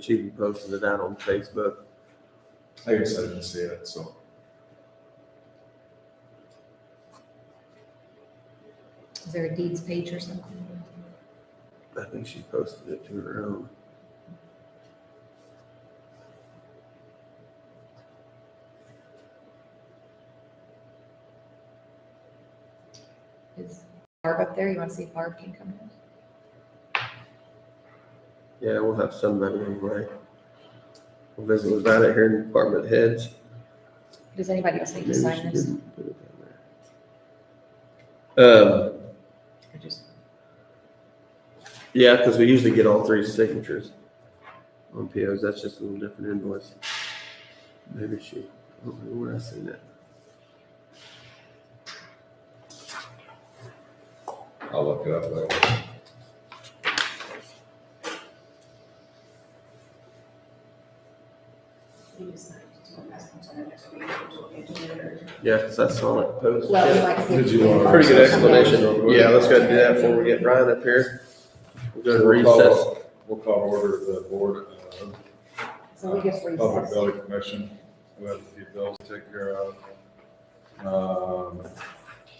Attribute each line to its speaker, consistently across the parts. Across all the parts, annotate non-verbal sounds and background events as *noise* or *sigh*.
Speaker 1: She posted it out on Facebook.
Speaker 2: I guess I didn't see it, so.
Speaker 3: Is there a deeds page or something?
Speaker 1: I think she posted it to her own.
Speaker 3: Is Barb up there? You want to see if Barb can come in?
Speaker 1: Yeah, we'll have somebody anyway. We'll visit about it here in department heads.
Speaker 3: Does anybody else need to
Speaker 1: Maybe she
Speaker 3: sign this?
Speaker 1: didn't put it down there. Um,
Speaker 3: Or just-
Speaker 1: yeah, because we usually get all three signatures on POs. That's just a little different invoice. Maybe she, I don't know where I seen that.
Speaker 2: I'll look it up later.
Speaker 1: Yeah, because I saw it posted.
Speaker 3: Well, we might see if
Speaker 2: Did you
Speaker 3: we can-
Speaker 2: want-
Speaker 1: Pretty good explanation.
Speaker 2: Real quick.
Speaker 1: Yeah, let's go ahead and do that before we get Brian up here. We'll go to
Speaker 2: We'll call-
Speaker 1: recess.
Speaker 2: We'll call order the board, uh,
Speaker 3: So we just
Speaker 2: Public
Speaker 3: recess.
Speaker 2: Building Commission, we have a few bills to take care of. Um,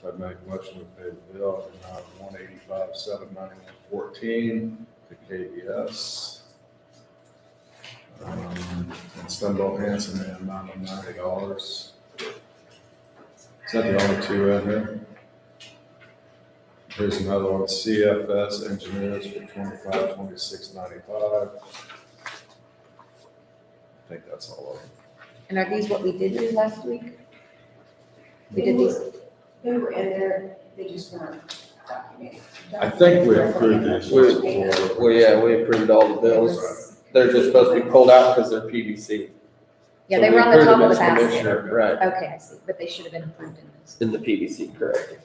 Speaker 2: I'd make a motion to pay the bill in amount of one eighty-five, seven ninety-one, fourteen to KBS. Um, And Stumble Hanson in the amount of ninety dollars. Is that the only two out here? There's another one, CFS Engineers for twenty-five, twenty-six, ninety-five. I think that's all of them.
Speaker 3: And are these what we did do last week? We did these,
Speaker 4: They were in there, they just weren't documented.
Speaker 2: I think we approved these ones before.
Speaker 1: Well, yeah, we approved all the
Speaker 3: There
Speaker 1: bills.
Speaker 3: was-
Speaker 1: They're just supposed to be pulled out because they're PVC.
Speaker 3: yeah,
Speaker 1: So
Speaker 3: they
Speaker 1: we
Speaker 3: were on the
Speaker 1: approved
Speaker 3: top
Speaker 1: them
Speaker 3: of the
Speaker 1: as
Speaker 3: basket.
Speaker 1: commissioner, Right,
Speaker 3: Okay, I see, but they should have been approved in this.
Speaker 1: in the PVC, correct.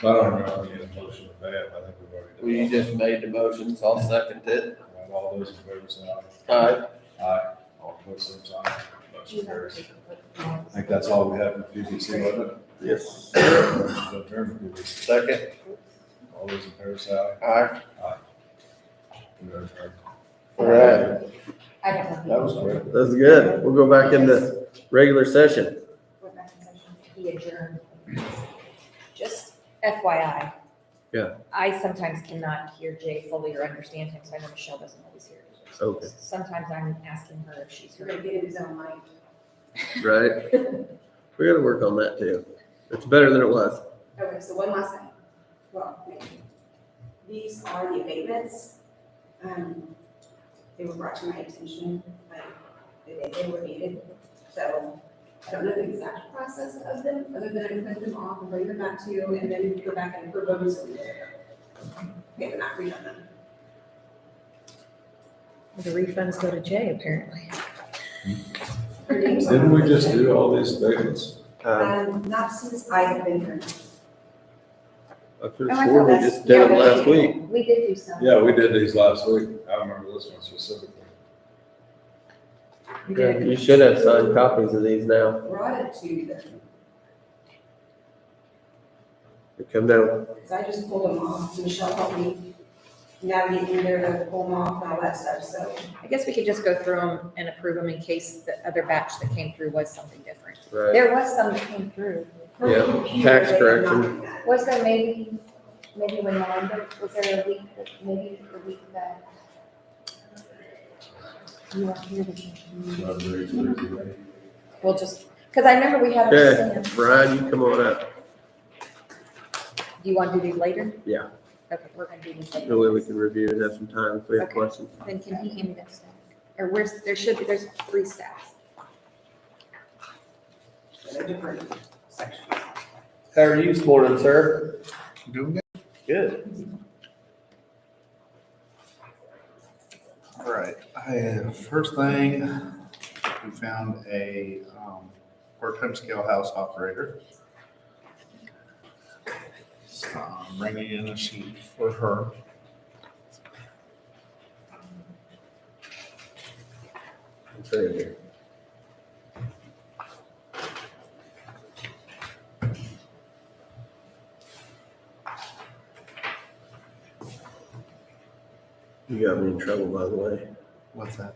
Speaker 2: So I don't know, if we need a motion to that, I think
Speaker 1: Well,
Speaker 2: we've
Speaker 1: you
Speaker 2: already done.
Speaker 1: just made the motions, I'll second it.
Speaker 2: that. All those in favor say
Speaker 1: Alright,
Speaker 2: aye. Aye. All opposed, same sign.
Speaker 4: Do you
Speaker 2: Motion
Speaker 4: have
Speaker 2: carries.
Speaker 4: to
Speaker 2: I
Speaker 4: take a look at
Speaker 2: think that's all we have in PBC, wasn't it?
Speaker 1: yes,
Speaker 2: Motion to adjourn PBC.
Speaker 1: second,
Speaker 2: All those in favor say aye.
Speaker 1: alright,
Speaker 2: We are adjourned.
Speaker 1: alright.
Speaker 3: I don't
Speaker 2: That
Speaker 3: know.
Speaker 2: was great.
Speaker 1: That's good, we'll go back into regular session.
Speaker 3: Went back in session. He adjourned. Just FYI.
Speaker 1: Yeah.
Speaker 3: I sometimes cannot hear Jay fully or understand him, so I know Michelle doesn't always hear. it.
Speaker 1: Okay.
Speaker 3: Sometimes I'm asking her if she's
Speaker 4: it. We're gonna
Speaker 3: heard.
Speaker 4: get in his own mind.
Speaker 3: *laughs*
Speaker 1: Right, we gotta work on that too. It's better than it was.
Speaker 4: Okay, so one last thing. Well, these are the abatements. Um, they were brought to my attention, but they, they were needed. So I don't know the exact process of them, other than I print them off and bring them back to you, and then go back and approve them. so They were not redone them.
Speaker 3: The refunds go to Jay apparently.
Speaker 4: Her name's on
Speaker 2: Didn't we
Speaker 4: the
Speaker 2: just
Speaker 4: list.
Speaker 2: do all these statements?
Speaker 3: Uh,
Speaker 1: Um,
Speaker 4: Um, not since I have been here.
Speaker 1: I could
Speaker 3: Oh,
Speaker 1: have
Speaker 3: I
Speaker 1: swore
Speaker 3: thought
Speaker 1: we
Speaker 3: that's-
Speaker 1: just did it
Speaker 3: yeah,
Speaker 1: last week.
Speaker 3: We did do some.
Speaker 2: Yeah, we did these last week. I remember this one specifically.
Speaker 3: We
Speaker 1: Yeah,
Speaker 3: did.
Speaker 1: You should have signed copies of these now.
Speaker 4: brought it to them,
Speaker 1: Come down,
Speaker 4: because I just pulled them off, Michelle helped me navigate in there to pull them off and all that stuff, so.
Speaker 3: I guess we could just go through them and approve them in case the other batch that came through was something different.
Speaker 1: right?
Speaker 3: There was some that came through.
Speaker 4: her
Speaker 1: Yeah,
Speaker 4: computer,
Speaker 1: tax
Speaker 4: they did not
Speaker 1: correction.
Speaker 4: do that.
Speaker 3: Was there maybe, maybe when Melinda, was there a week, that maybe a week that? You weren't here, but you-
Speaker 2: So I agree, agree, agree.
Speaker 3: We'll just, because I remember we had a
Speaker 1: Okay,
Speaker 3: stand.
Speaker 1: Brian, you come on up.
Speaker 3: Do you want to do these later?
Speaker 1: Yeah.
Speaker 3: Okay, we're gonna do these
Speaker 1: That way we
Speaker 3: later.
Speaker 1: can review and have some time if we have
Speaker 3: Okay.
Speaker 1: questions.
Speaker 3: Then can he hand me that stack? Or where's, there should be, there's three stacks.
Speaker 4: They're different sections.
Speaker 1: How are you this morning, sir?
Speaker 5: Doing
Speaker 1: Good.
Speaker 5: All right, I, Uh, first thing, we found a, um, part-time scale house operator. So I'm bringing in a sheet for her.
Speaker 1: You got me in trouble, by the way.
Speaker 5: What's that?